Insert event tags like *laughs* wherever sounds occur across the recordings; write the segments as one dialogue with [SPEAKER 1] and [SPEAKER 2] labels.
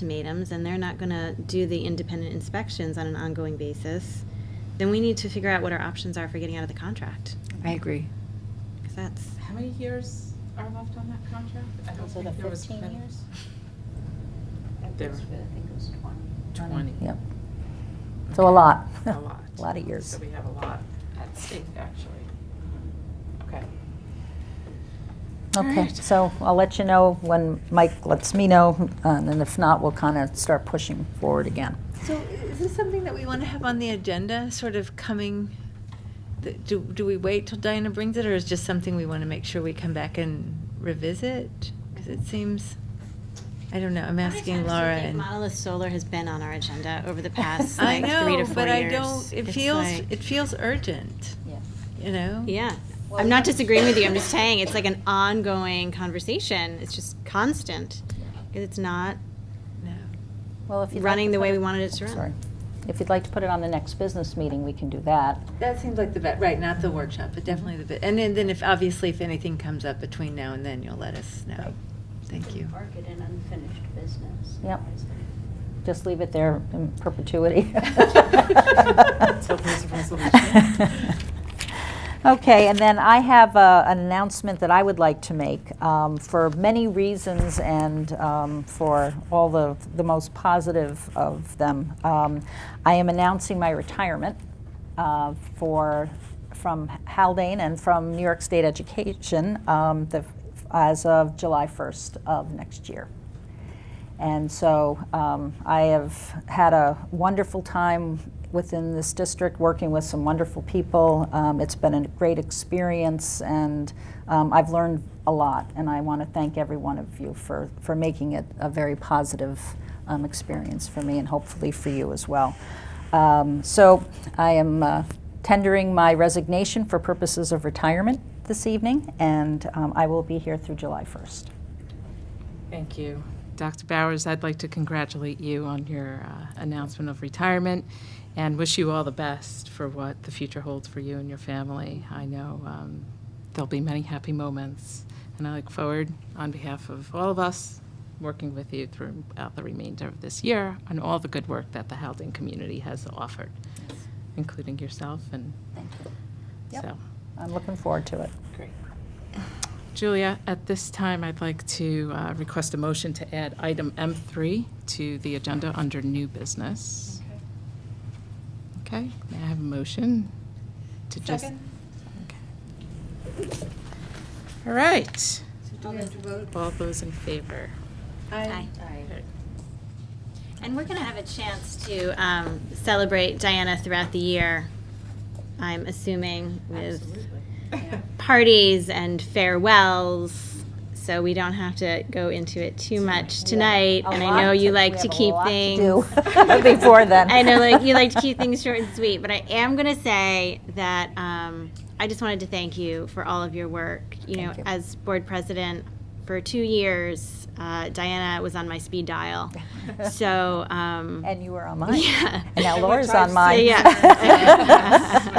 [SPEAKER 1] ultimatums and they're not going to do the independent inspections on an ongoing basis, then we need to figure out what our options are for getting out of the contract.
[SPEAKER 2] I agree.
[SPEAKER 1] 'Cause that's,
[SPEAKER 3] How many years are left on that contract? I don't
[SPEAKER 4] Was it
[SPEAKER 3] think
[SPEAKER 4] a
[SPEAKER 3] there was
[SPEAKER 4] 15
[SPEAKER 3] many.
[SPEAKER 4] years?
[SPEAKER 3] At There. least,
[SPEAKER 4] I think it was 20.
[SPEAKER 3] 20.
[SPEAKER 2] Yep.
[SPEAKER 4] So a *laughs* lot.
[SPEAKER 3] *laughs* A lot.
[SPEAKER 4] A lot of years.
[SPEAKER 3] So we have a lot at stake, actually. Okay.
[SPEAKER 4] Okay,
[SPEAKER 3] Alright.
[SPEAKER 4] so I'll let you know when Mike lets me know, uh, and then if not, we'll kind of start pushing forward again.
[SPEAKER 5] So is this something that we want to have on the agenda, sort of coming, th- do, do we wait till Diana brings it, or is just something we want to make sure we come back and revisit? Because it seems, I don't know, I'm asking Laura and.
[SPEAKER 1] Monolith Solar has been on our agenda
[SPEAKER 5] *laughs*
[SPEAKER 1] over the past
[SPEAKER 5] I
[SPEAKER 1] like three to
[SPEAKER 5] know,
[SPEAKER 1] four
[SPEAKER 5] but I
[SPEAKER 1] years.
[SPEAKER 5] don't, it
[SPEAKER 1] It's
[SPEAKER 5] feels,
[SPEAKER 1] like-
[SPEAKER 5] it feels urgent, you know?
[SPEAKER 1] Yeah. I'm not disagreeing with you. I'm just saying it's like an ongoing conversation. It's just constant. 'Cause It's not
[SPEAKER 5] No.
[SPEAKER 4] Well, if you'd like
[SPEAKER 1] running
[SPEAKER 4] to
[SPEAKER 1] the
[SPEAKER 4] put
[SPEAKER 1] way
[SPEAKER 4] it-
[SPEAKER 1] we wanted it to run.
[SPEAKER 4] Sorry. If you'd like to put it on the next business meeting, we can do that.
[SPEAKER 5] That seems like the best, right, not the workshop, but definitely the, bit. and then then if, obviously, if anything comes up between now and then, you'll let us know.
[SPEAKER 4] Right.
[SPEAKER 5] Thank you.
[SPEAKER 6] Mark it an unfinished business.
[SPEAKER 4] Yep.
[SPEAKER 6] Otherwise,
[SPEAKER 4] Just leave it there in perpetuity. *laughs*
[SPEAKER 3] hope it's a resolution.
[SPEAKER 4] Okay, and then I have uh, an announcement that I would like to make um, for many reasons and um, for all the, the most positive of them. Um, I am announcing my retirement uh, for, from Haldane and from New York State Education um, the, as of July 1st of next year. And so um, I have had a wonderful time within this district, working with some wonderful people. Um, it's been a great experience, and um, I've learned a lot. And I want to thank every one of you for, for making it a very positive um, experience for me and hopefully for you as well. Um, so I am uh, tendering my resignation for purposes of retirement this evening, and um, I will be here through July 1st.
[SPEAKER 3] Thank you. Dr. Bowers, I'd like to congratulate you on your uh, announcement of retirement and wish you all the best for what the future holds for you and your family. I know um, there'll be many happy moments, and I look forward, on behalf of all of us, working with you throughout the remainder of this year on all the good work that the Haldane community has offered, including yourself and
[SPEAKER 4] Thank you. Yep.
[SPEAKER 3] so.
[SPEAKER 4] I'm looking forward to it.
[SPEAKER 3] Great. Julia, at this time, I'd like to uh, request a motion to add item M3 to the agenda under new business. Okay, may I have a motion to just? Second. All right. All those in favor?
[SPEAKER 1] Aye. And we're going to have a chance to um, celebrate Diana throughout the year, I'm assuming, with parties and farewells. So we don't have to go into it too much tonight.
[SPEAKER 4] A
[SPEAKER 1] And I
[SPEAKER 4] lot
[SPEAKER 1] know you
[SPEAKER 4] to-
[SPEAKER 1] like
[SPEAKER 4] we
[SPEAKER 1] to
[SPEAKER 4] have a
[SPEAKER 1] keep
[SPEAKER 4] lot to
[SPEAKER 1] things.
[SPEAKER 4] do *laughs* before then.
[SPEAKER 1] I know, like you like to keep things short and sweet, but I am gonna say that um, I just wanted to thank you for all of your work. You know,
[SPEAKER 4] Thank you.
[SPEAKER 1] as board president for two years, uh, Diana was on my speed
[SPEAKER 4] *laughs*
[SPEAKER 1] dial, so um,
[SPEAKER 4] And you were on mine.
[SPEAKER 1] *laughs* Yeah.
[SPEAKER 4] And now Laura's on mine.
[SPEAKER 1] so,
[SPEAKER 4] *laughs*
[SPEAKER 1] yeah.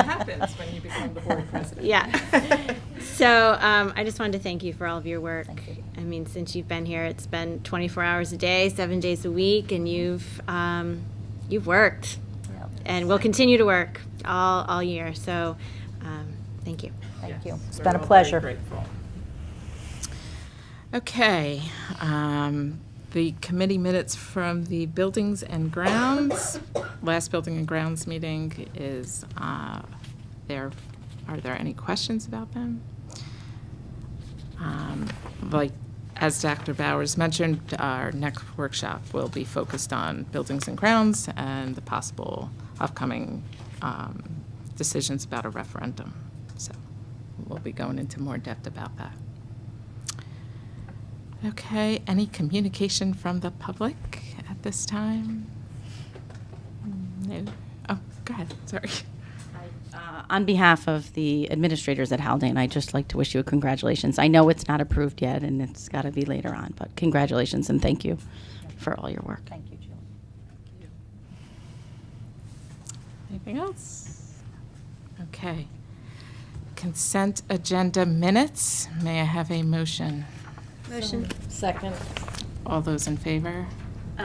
[SPEAKER 3] happens when you become the board president.
[SPEAKER 1] Yeah.
[SPEAKER 6] *laughs*
[SPEAKER 1] So um, I just wanted to thank you for all of your work.
[SPEAKER 4] Thank you.
[SPEAKER 1] I mean, since you've been here, it's been 24 hours a day, seven days a week, and you've um, you've worked,
[SPEAKER 4] Yep.
[SPEAKER 1] and will continue to work all all year. So um, thank you.
[SPEAKER 4] Thank you.
[SPEAKER 3] Yes,
[SPEAKER 4] It's
[SPEAKER 3] we're
[SPEAKER 4] been
[SPEAKER 3] all
[SPEAKER 4] a
[SPEAKER 3] very
[SPEAKER 4] pleasure.
[SPEAKER 3] grateful. Okay, um, the committee minutes from the Buildings and Grounds, last Building and Grounds meeting is, uh, there, are there any questions about them? Um, Like, as Dr. Bowers mentioned, our next workshop will be focused on buildings and grounds and the possible upcoming um, decisions about a referendum. So we'll be going into more depth about that. Okay, any communication from the public at this time? No? Oh, go ahead, sorry. *laughs*
[SPEAKER 7] Uh, On behalf of the administrators at Haldane, I'd just like to wish you a congratulations. I know it's not approved yet, and it's got to be later on, but congratulations and thank you for all your work.
[SPEAKER 4] Thank you, Julie.
[SPEAKER 3] Anything else? Okay. Consent agenda minutes. May I have a motion?
[SPEAKER 1] Motion.
[SPEAKER 3] All those in favor?